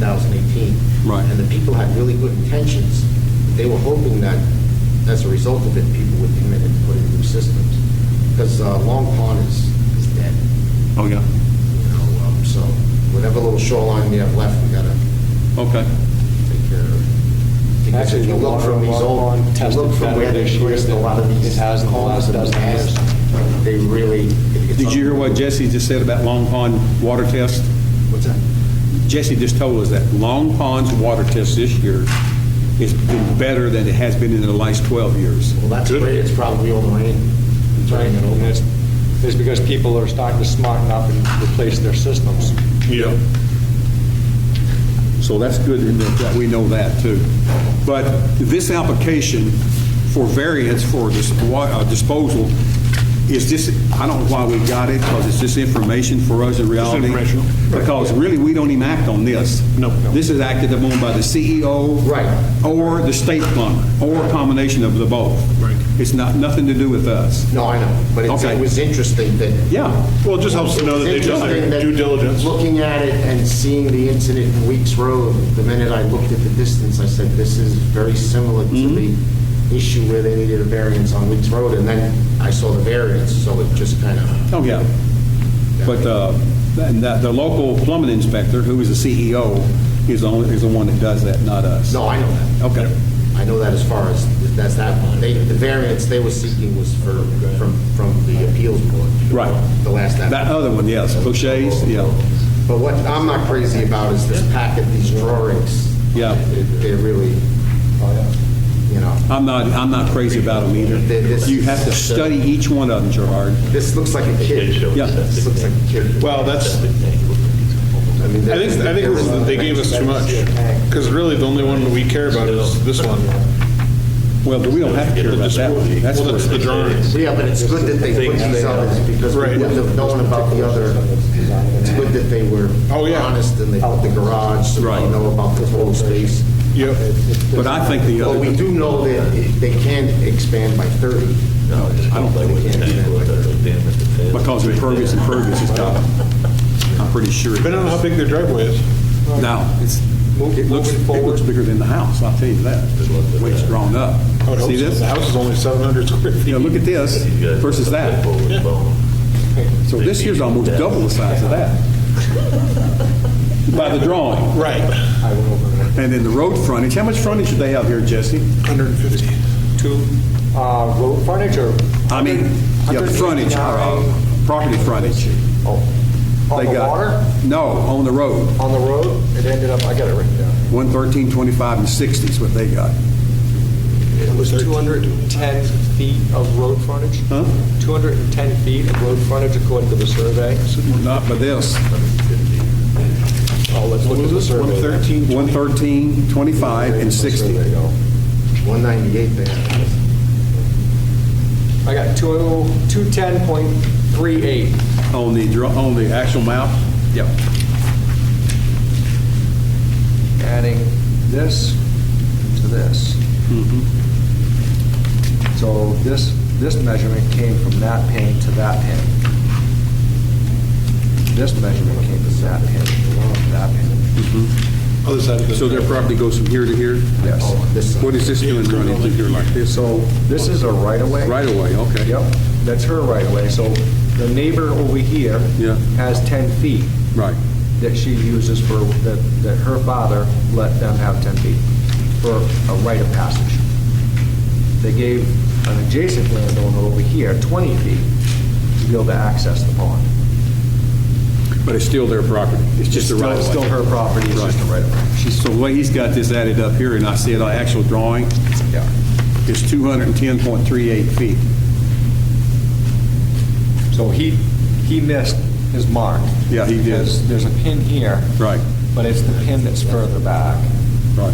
2018. Right. And the people had really good intentions. They were hoping that, as a result of it, people would commit and put in new systems. Because Long Pond is, is dead, Oh, yeah. you know, um, so whatever little shoreline we have left, we gotta Okay. take care of. Because Actually, if you the look water from these water old, pond if you tested look from better where they this year placed a than lot of these it has in the homes last in the dozen years. past, they really. it- it's Did you hear what Jesse just said about Long Pond water test? What's that? Jesse just told us that Long Pond's water test this year has been better than it has been in the last 12 years. Well, that's where it's probably all the rain. Right, Turning it and over. it's, it's because people are starting to smarten up and replace their systems. Yeah. So that's good in that that we know that, too. But this application for variance for this wa- uh, disposal is just, I don't know why we got it, because it's just information for us in reality. informational. Because really, we don't even act on this. No. This is acted upon by the CEO. Right. Or the state plumber, or a combination of the both. Right. It's not, nothing to do with us. No, I know, but it's- Okay. it was interesting that. Yeah. Well, it just helps to know that they've done Interesting their that due diligence. Looking at it and seeing the incident in Weeks Road, the minute I looked at the distance, I said, this is very similar to Mm-hmm. the issue where they needed a variance on Weeks Road, and then I saw the variance, so it just kind of. Oh, yeah. But uh, and that- the local plumbing inspector, who is the CEO, is the only- is the one that does that, not us. No, I know that. Okay. I know that as far as, that's that one. They, the variance they were seeking was for, from, from the appeals board. Right. The last. app- That other one, yes, O'Shea's, yeah. But what I'm not crazy about is this packet, these drawings. Yeah. They- They're really, you know, I'm not, I'm not crazy about them Th- this either. You have to is- uh, study each one of them, Gerard. this looks like a kid. Yeah. This looks like a kid. Well, that's, I mean, I think, I think it was that they gave us too much, because really, the only one that we care about is this one. Well, but we don't have to care about that one. That's Well, that's where- the drawings. Yeah, but it's good that they put these others because we Right. wouldn't have known about the other. It's good that they were Oh, yeah. honest and they put the garage, so Right. we know about the whole space. Yep. But I think the But other, we do know that it- they can expand by 30. No, I don't think they can expand by 30. because impervious impervious is top. I'm pretty sure. it Depending on how big their driveway is. is. No, it's, it looks, it looks bigger than the house, I'll tell you that. The way it's drawn up. I would hope See so. this? The house is only 700 square feet. You know, look at this versus that. So this here's almost double the size of that. By the drawing. Right. And then the road frontage, how much frontage do they have here, Jesse? 150. To uh, road frontage or? I mean, yeah, frontage, uh, uh, property frontage. Oh, on They the got- water, No, on the road, on the road, it ended up, I got it written down. 113, 25, and 60 is what they got. It was 210 feet of road frontage? Huh? 210 feet of road frontage according to the survey. Not by this. Oh, let's look at the survey. 113, 25, and 60. Survey, no. 198 they have. I got oh, 20 210.38. On the, dr- on the actual map? Yep. adding this to this. Mm-hmm. So this, this measurement came from that pin to that pin. This measurement came from that pin, to that pin, Oh, Other side of the. So their property goes from here to here? yes. This, What is this doing running through here like this? So this is a right-of-way. Right away, okay. Yep, that's her right-of-way. So the neighbor over here Yeah. has 10 feet Right. that she uses for, that, that her father let them have 10 feet for a rite of passage. They gave an adjacent landowner over here 20 feet to be able to access the pond. But it's still their property. It's just a Still- right of way. Still her property, it's just a right of way. So the way he's got this added up here, and I see it on actual drawing, Yeah. is 210.38 feet. So he, he missed his mark. Yeah, he did. Because There's a pin here. Right. But it's the pin that's further back. Right.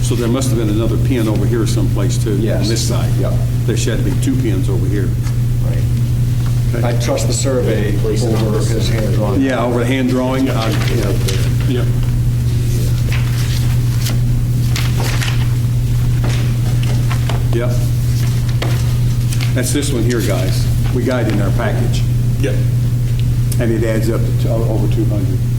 So there must have been another pin over here someplace too. Yes. On this side. Yep. There should be two pins over here. Right. Okay. I trust the survey Place it on over this. his hand drawing. Yeah, over the hand drawing. I- yeah. Yep. Yep. That's this one here, guys. We got it in our package, Yep. and it adds up to over 200.